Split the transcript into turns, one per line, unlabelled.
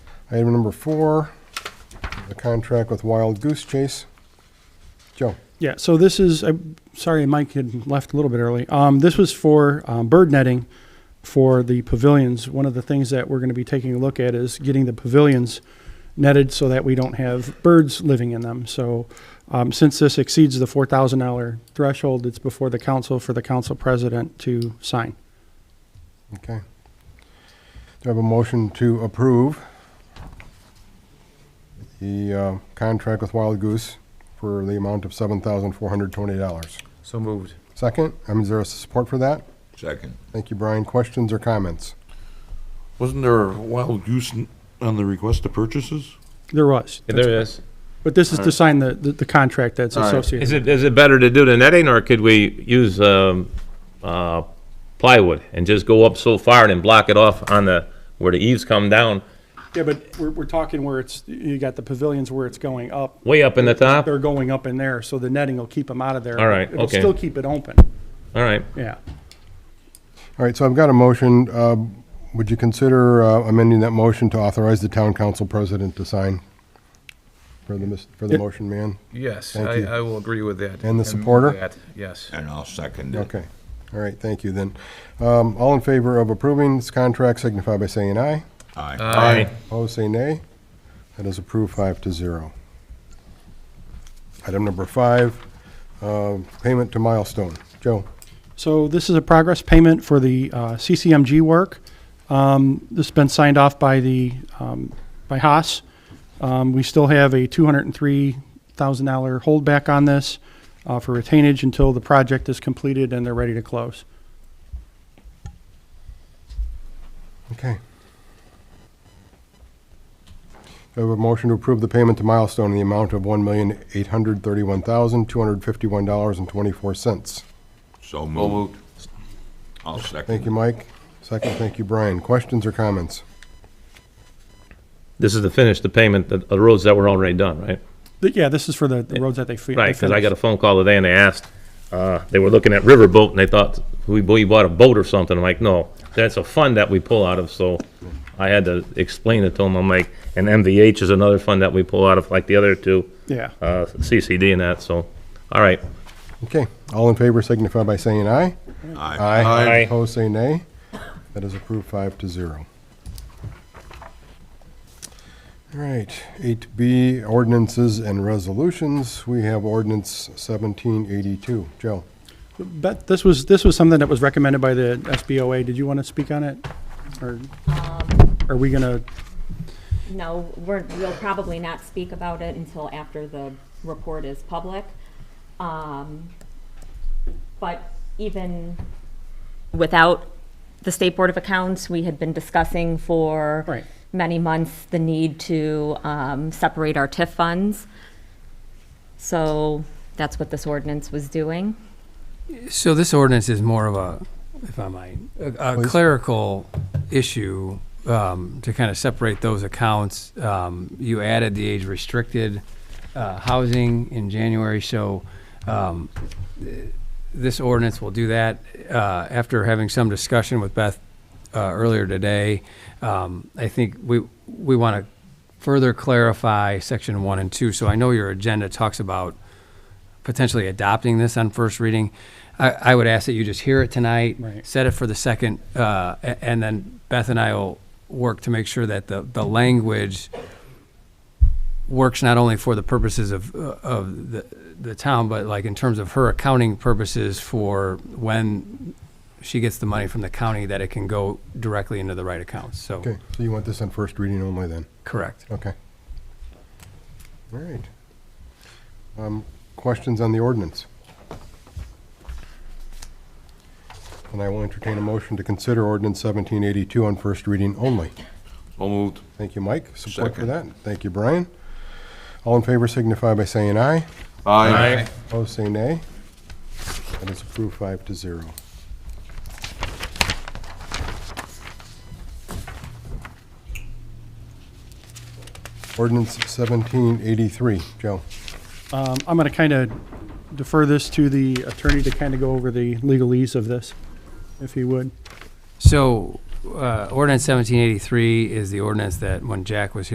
Item number four, the contract with Wild Goose Chase. Joe,
Yeah, so this is, I'm sorry, Mike had left a little bit early. Um, this was for um, bird netting for the pavilions. One of the things that we're going to be taking a look at is getting the pavilions netted so that we don't have birds living in them. So um, since this exceeds the $4,000 threshold, it's before the council for the council president to sign.
okay. Do I have a motion to approve the uh, contract with Wild Goose for the amount of $7,420?
So moved.
Second, I mean, is there support for that?
Second.
Thank you, Brian. Questions or comments?
Wasn't there a wild goose n- on the request of purchases?
There was.
There it is.
But this is to sign the, the, the contract that's
All right.
associated.
Is it, is it better to do the netting, or could we use um, uh, plywood and just go up so far and then block it off on the, where the eaves come down,
Yeah, but we're, we're talking where it's, you got the pavilions where it's going up.
way up in the top?
they're going up in there, so the netting will keep them out of there.
All right,
It'll
okay.
still keep it open,
All right.
yeah.
All right, so I've got a motion. Um, Would you consider uh, amending that motion to authorize the town council president to sign for the, mis- for the
Yep.
motion man?
Yes,
Thank
I,
you.
I will agree with that.
And the
move
supporter?
that, Yes.
And I'll second it.
Okay, all right, thank you then. Um, All in favor of approving this contract signify by saying aye.
Aye.
Aye.
Opposed, say nay. That is approved five to zero. Item number five, uh, payment to Milestone. Joe,
So this is a progress payment for the uh, CCMG work. Um, This has been signed off by the, um, by Haas. Um, We still have a $203,000 holdback on this uh, for retainage until the project is completed and they're ready to close.
okay. Do I have a motion to approve the payment to Milestone in the amount of $1,831,251.24?
So moved. I'll
Thank
second.
you, Mike. Second, thank you, Brian. Questions or comments?
This is to finish the payment, the the roads that were already done, right?
But yeah, this is for the the roads that they fe- they
Right, because I
finished.
got a phone call today and they asked, uh, they were looking at riverboat and they thought, we, we bought a boat or something. I'm like, no, that's a fund that we pull out of, so I had to explain it to them. I'm like, and MVH is another fund that we pull out of, like the other two,
Yeah.
uh, CCD and that, so, all right.
Okay, all in favor signify by saying aye.
Aye.
Aye.
Opposed, say nay. That is approved five to zero. All right, eight B, ordinances and resolutions. We have ordinance seventeen eighty-two. Joe?
But this was, this was something that was recommended by the SBOA. Did you want to speak on it? Or are we going to
No, we're, we'll probably not speak about it until after the report is public. Um, But even without the State Board of Accounts, we had been discussing for
Right.
many months the need to um, separate our TIF funds. So that's what this ordinance was doing.
So this ordinance is more of a, if I might, a a
Please.
clerical issue um, to kind of separate those accounts. Um, You added the age-restricted uh, housing in January, so um, this ordinance will do that. Uh, After having some discussion with Beth uh, earlier today, um, I think we, we want to further clarify section one and two. So I know your agenda talks about potentially adopting this on first reading, I, I would ask that you just hear it tonight.
Right.
Set it for the second, uh, a- and then Beth and I will work to make sure that the, the language works not only for the purposes of, uh, of the, the town, but like in terms of her accounting purposes for when she gets the money from the county, that it can go directly into the right accounts, so.
Okay, so you want this on first reading only then?
Correct.
Okay. All right. Um, Questions on the ordinance? And I will entertain a motion to consider ordinance seventeen eighty-two on first reading only.
So moved.
Thank you, Mike. Support for
Second.
that. Thank you, Brian. All in favor signify by saying aye.
Aye.
Opposed, say nay. That is approved five to zero. Ordinance 1783. Joe?
Um, I'm going to kind of defer this to the attorney to kind of go over the legalese of this, if he would.
So, uh, ordinance seventeen eighty-three is the ordinance that when Jack was here.